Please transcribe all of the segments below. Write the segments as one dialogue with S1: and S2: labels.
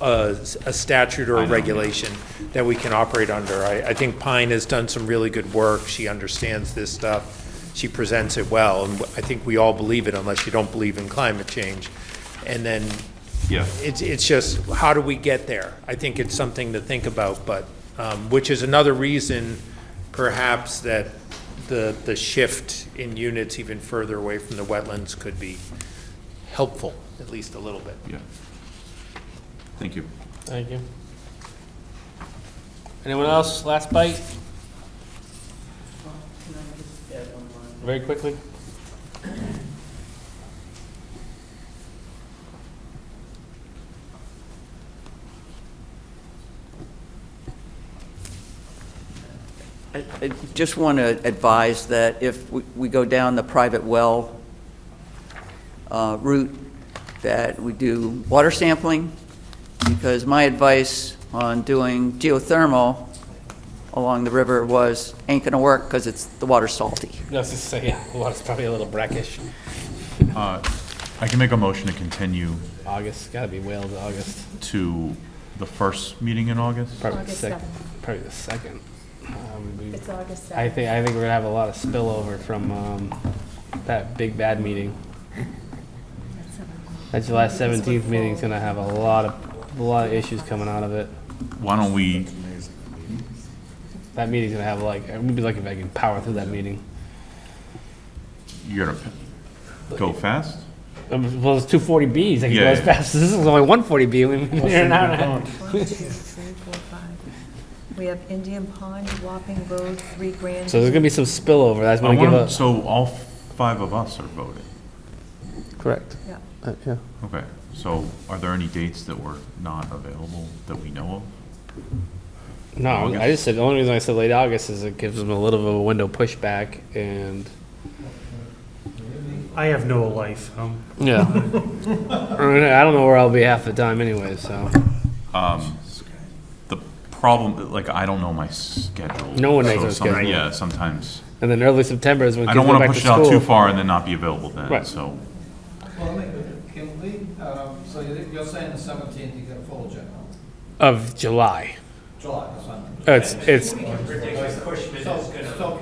S1: a a statute or a regulation that we can operate under. I, I think Pine has done some really good work. She understands this stuff. She presents it well, and I think we all believe it unless you don't believe in climate change. And then
S2: Yeah.
S1: it's, it's just, how do we get there? I think it's something to think about, but, um, which is another reason perhaps that the, the shift in units even further away from the wetlands could be helpful, at least a little bit.
S2: Yeah. Thank you.
S3: Thank you. Anyone else? Last bite? Very quickly.
S4: I I just want to advise that if we- we go down the private well uh, route, that we do water sampling, because my advice on doing geothermal along the river was, ain't going to work because it's, the water's salty.
S3: No, I was just saying, well, it's probably a little brackish.
S2: I can make a motion to continue
S3: August, gotta be Wales, August.
S2: to the first meeting in August.
S3: Probably the
S5: August
S3: sec-
S5: 7th.
S3: Probably the second. Um, we-
S5: It's August 7th.
S3: I think, I think we're gonna have a lot of spillover from, um, that big bad meeting. That July seventeenth meeting's gonna have a lot of, a lot of issues coming out of it.
S2: Why don't we,
S3: That meeting's gonna have like, it would be lucky if I can power through that meeting.
S2: you're gonna p- go fast?
S3: Um, Well, it's two forty Bs, I can go
S2: Yeah,
S3: as
S2: yeah.
S3: fast, this is only one forty B, we mean, here and out.
S5: One, two, three, four, five. We have Indian Pond, Wapping Road, Three Grand.
S3: So there's gonna be some spillover, that's
S2: I
S3: gonna give
S2: want,
S3: us.
S2: so all five of us are voting.
S3: Correct. Uh,
S5: Yeah.
S3: Yeah.
S2: Okay, so are there any dates that were not available that we know
S3: No, I just said, the only reason I said late August is it gives them a little bit of a window pushback and.
S6: I have no life. Um,
S3: Yeah. I don't know where I'll be half the time anyway, so.
S2: of? The problem, like, I don't know my schedule.
S3: No one knows
S2: so
S3: their
S2: some-
S3: schedule.
S2: Yeah, sometimes,
S3: And then early September is when
S2: I
S3: kids
S2: don't
S3: go
S2: wanna
S3: back to
S2: push it out
S3: school.
S2: too far and then not be available then,
S3: Right.
S2: so.
S7: Well, wait, can we, um, so you're you're saying the seventeenth, you get a full agenda,
S3: Of July.
S7: July, that's fine.
S3: Uh, It's, it's,
S7: So, so,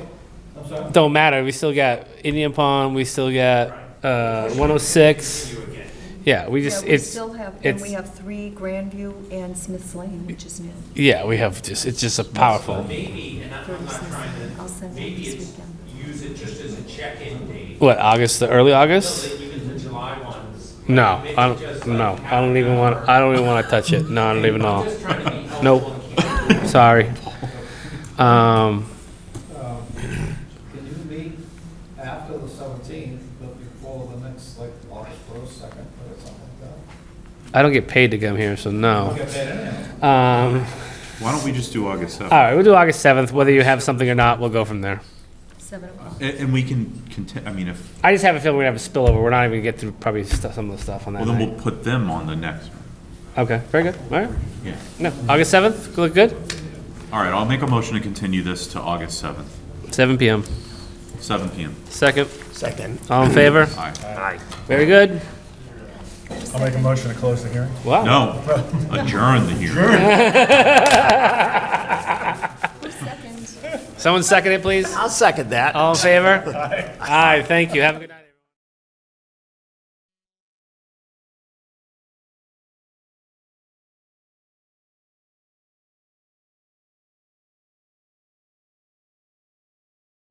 S7: I'm sorry,
S3: don't matter, we still got Indian Pond, we still got, uh, one oh six. Yeah, we
S5: Yeah,
S3: just,
S5: we
S3: it's,
S5: still have, and we
S3: it's,
S5: have Three Grandview and Smith's Lane, which is new.
S3: yeah, we have just, it's just a powerful.
S8: Maybe, and I'm I'm not trying
S5: I'll send
S8: to,
S5: it
S8: maybe
S5: this
S8: it's,
S5: weekend.
S8: use it just as a check-in date,
S3: What, August, the early August?
S8: but even the July ones.
S3: No,
S8: maybe
S3: I don't,
S8: just
S3: no,
S8: like
S3: I don't even
S8: half an
S3: want, I don't even want to touch it. No, I don't even know.
S8: hour. I'm just trying to be helpful
S3: Nope.
S8: and keep it
S3: Sorry. Um,
S7: um, can you meet after the seventeenth, but before the next, like, August first, second, or something like that?
S3: I don't get paid to come here, so no.
S7: Okay, then, anyhow,
S3: Um,
S2: Why don't we just do August
S3: all right, we'll do August 7th. Whether you have something or not, we'll go from there.
S5: Seven oh o'clock.
S2: And, and we can conti, I mean, if,
S3: I just have a feeling we're going to have a spillover. We're not even going to get through probably st- some of the stuff on that
S2: well, then
S3: night.
S2: we'll put them on the next one.
S3: okay, very good. All right.
S2: Yeah.
S3: No, August 7th, look good.
S2: All right, I'll make a motion to continue this to August 7th,
S3: 7 p.m.
S2: seven PM.
S3: Second.
S1: Second.
S3: All in favor?
S2: Aye.
S3: Very good.
S6: I'll make a motion to close the hearing.
S3: Wow.
S2: No, adjourn the hearing.
S3: Someone second it, please. I'll second that. All in favor? Aye. Aye, thank you. Have a good night.